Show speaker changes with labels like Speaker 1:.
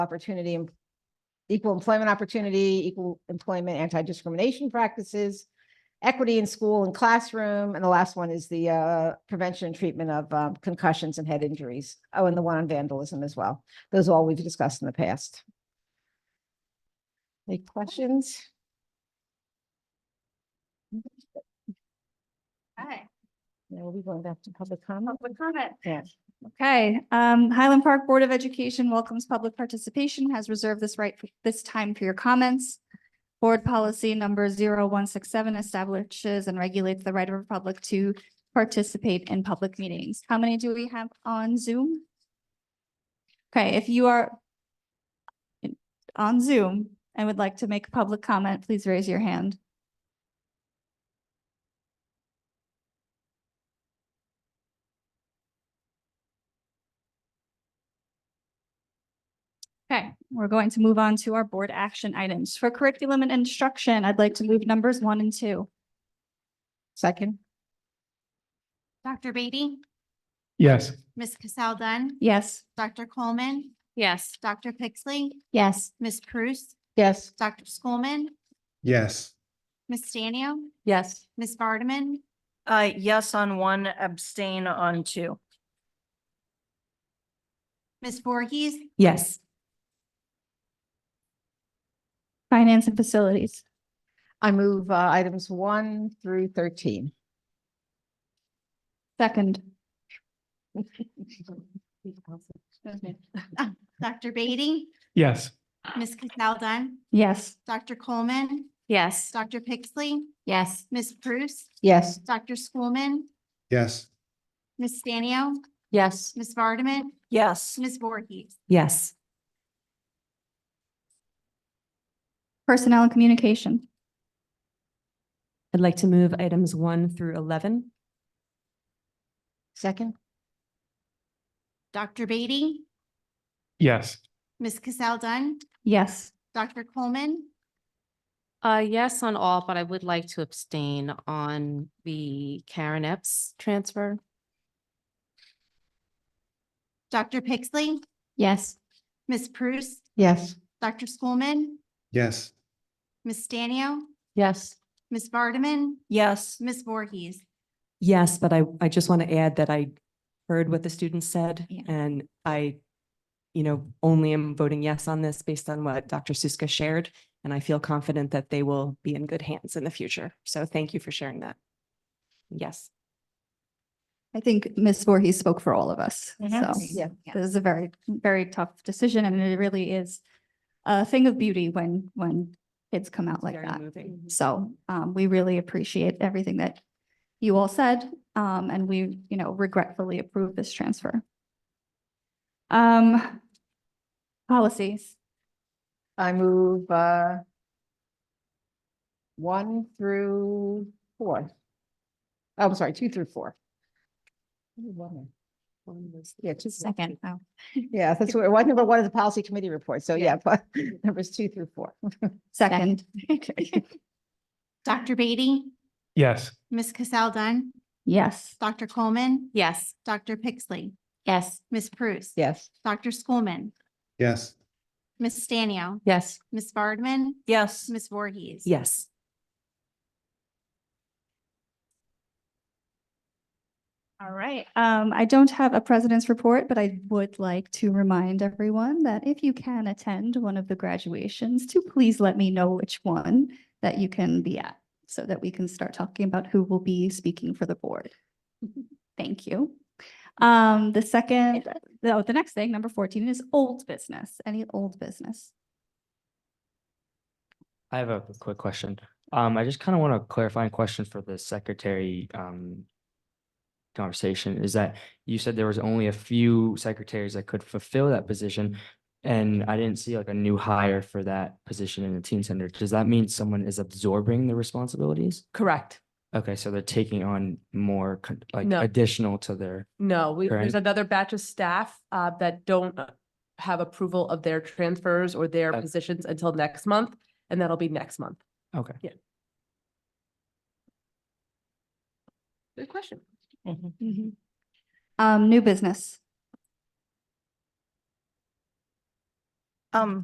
Speaker 1: opportunity, em- equal employment opportunity, equal employment, anti-discrimination practices, equity in school and classroom, and the last one is the uh, prevention and treatment of um, concussions and head injuries. Oh, and the one on vandalism as well. Those are all we've discussed in the past. Any questions?
Speaker 2: Okay,
Speaker 1: Now we'll be going back to public comment.
Speaker 2: public comment.
Speaker 1: Yeah.
Speaker 2: Okay, um, Highland Park Board of Education welcomes public participation, has reserved this right for this time for your comments. Board policy number 0167 establishes and regulates the right of the public to participate in public meetings. How many do we have on Zoom? Okay, if you are on Zoom and would like to make a public comment, please raise your hand. Okay, we're going to move on to our board action items. For curriculum and instruction, I'd like to move numbers one and two.
Speaker 1: Second,
Speaker 3: Dr. Beatty,
Speaker 4: Yes.
Speaker 3: Ms. Cassel Dunn,
Speaker 2: Yes.
Speaker 3: Dr. Coleman,
Speaker 5: Yes.
Speaker 3: Dr. Pixley,
Speaker 2: Yes.
Speaker 3: Ms. Prus,
Speaker 1: yes,
Speaker 3: Dr. Schoolman,
Speaker 4: Yes.
Speaker 3: Ms. Stanio,
Speaker 5: Yes.
Speaker 3: Ms. Vardaman,
Speaker 5: Uh, yes on one, abstain on two.
Speaker 3: Ms. Voorhees,
Speaker 5: Yes.
Speaker 2: Finance and facilities.
Speaker 1: I move uh, items one through thirteen.
Speaker 2: Second.
Speaker 3: Dr. Beatty,
Speaker 4: Yes.
Speaker 3: Ms. Cassel Dunn,
Speaker 2: Yes.
Speaker 3: Dr. Coleman,
Speaker 5: Yes.
Speaker 3: Dr. Pixley,
Speaker 5: Yes.
Speaker 3: Ms. Prus,
Speaker 1: Yes,
Speaker 3: Dr. Schoolman,
Speaker 4: Yes.
Speaker 3: Ms. Stanio,
Speaker 5: Yes.
Speaker 3: Ms. Vardaman,
Speaker 5: Yes.
Speaker 3: Ms. Voorhees,
Speaker 5: Yes.
Speaker 2: Personnel and communication.
Speaker 6: I'd like to move items one through eleven.
Speaker 1: second,
Speaker 3: Dr. Beatty,
Speaker 4: Yes.
Speaker 3: Ms. Cassel Dunn,
Speaker 2: Yes.
Speaker 3: Dr. Coleman,
Speaker 7: Uh, yes on all, but I would like to abstain on the Karen Epps transfer.
Speaker 3: Dr. Pixley,
Speaker 2: Yes.
Speaker 3: Ms. Prus,
Speaker 1: yes,
Speaker 3: Dr. Schoolman,
Speaker 4: Yes.
Speaker 3: Ms. Stanio,
Speaker 7: Yes.
Speaker 3: Ms. Vardaman,
Speaker 5: Yes.
Speaker 3: Ms. Voorhees,
Speaker 6: Yes, but I, I just want to add that I heard what the students said
Speaker 2: Yeah.
Speaker 6: and I, you know, only am voting yes on this based on what Dr. Suska shared. And I feel confident that they will be in good hands in the future. So thank you for sharing that. Yes.
Speaker 2: I think Ms. Voorhees spoke for all of us. So
Speaker 1: yeah,
Speaker 2: this is a very, very tough decision and it really is a thing of beauty when, when kids come out like
Speaker 6: Very
Speaker 2: that.
Speaker 6: moving.
Speaker 2: So um, we really appreciate everything that you all said, um, and we, you know, regretfully approve this transfer. Um, policies,
Speaker 1: I move uh one through four. Oh, I'm sorry, two through four. Ooh, one there. Yeah, two, through-
Speaker 2: second, oh,
Speaker 1: yeah, that's what, one number one is the policy committee report, so yeah, but numbers two through four.
Speaker 2: Oh. second,
Speaker 3: Dr. Beatty,
Speaker 4: Yes.
Speaker 3: Ms. Cassel Dunn,
Speaker 2: yes,
Speaker 3: Dr. Coleman,
Speaker 5: Yes.
Speaker 3: Dr. Pixley,
Speaker 5: Yes.
Speaker 3: Ms. Prus.
Speaker 1: Yes,
Speaker 3: Dr. Schoolman,
Speaker 4: Yes.
Speaker 3: Ms. Stanio,
Speaker 5: Yes.
Speaker 3: Ms. Vardman,
Speaker 5: Yes.
Speaker 3: Ms. Voorhees.
Speaker 6: Yes.
Speaker 2: all right. Um, I don't have a president's report, but I would like to remind everyone that if you can attend one of the graduations, to please let me know which one that you can be at, so that we can start talking about who will be speaking for the board. Thank you. Um, the second, the, oh, the next thing, number fourteen is old business, any old business.
Speaker 8: I have a quick question. Um, I just kind of want a clarifying question for the secretary, um, conversation is that you said there was only a few secretaries that could fulfill that position. And I didn't see like a new hire for that position in the teen center. Does that mean someone is absorbing the responsibilities?
Speaker 9: Correct.
Speaker 8: Okay, so they're taking on more con- like
Speaker 9: No.
Speaker 8: additional to their,
Speaker 9: No, we, there's
Speaker 8: Correct.
Speaker 9: another batch of staff uh, that don't uh, have approval of their transfers or their
Speaker 8: Okay.
Speaker 9: positions until next month, and that'll be next month.
Speaker 8: okay.
Speaker 9: Good question.
Speaker 2: Um, new business.
Speaker 1: Um,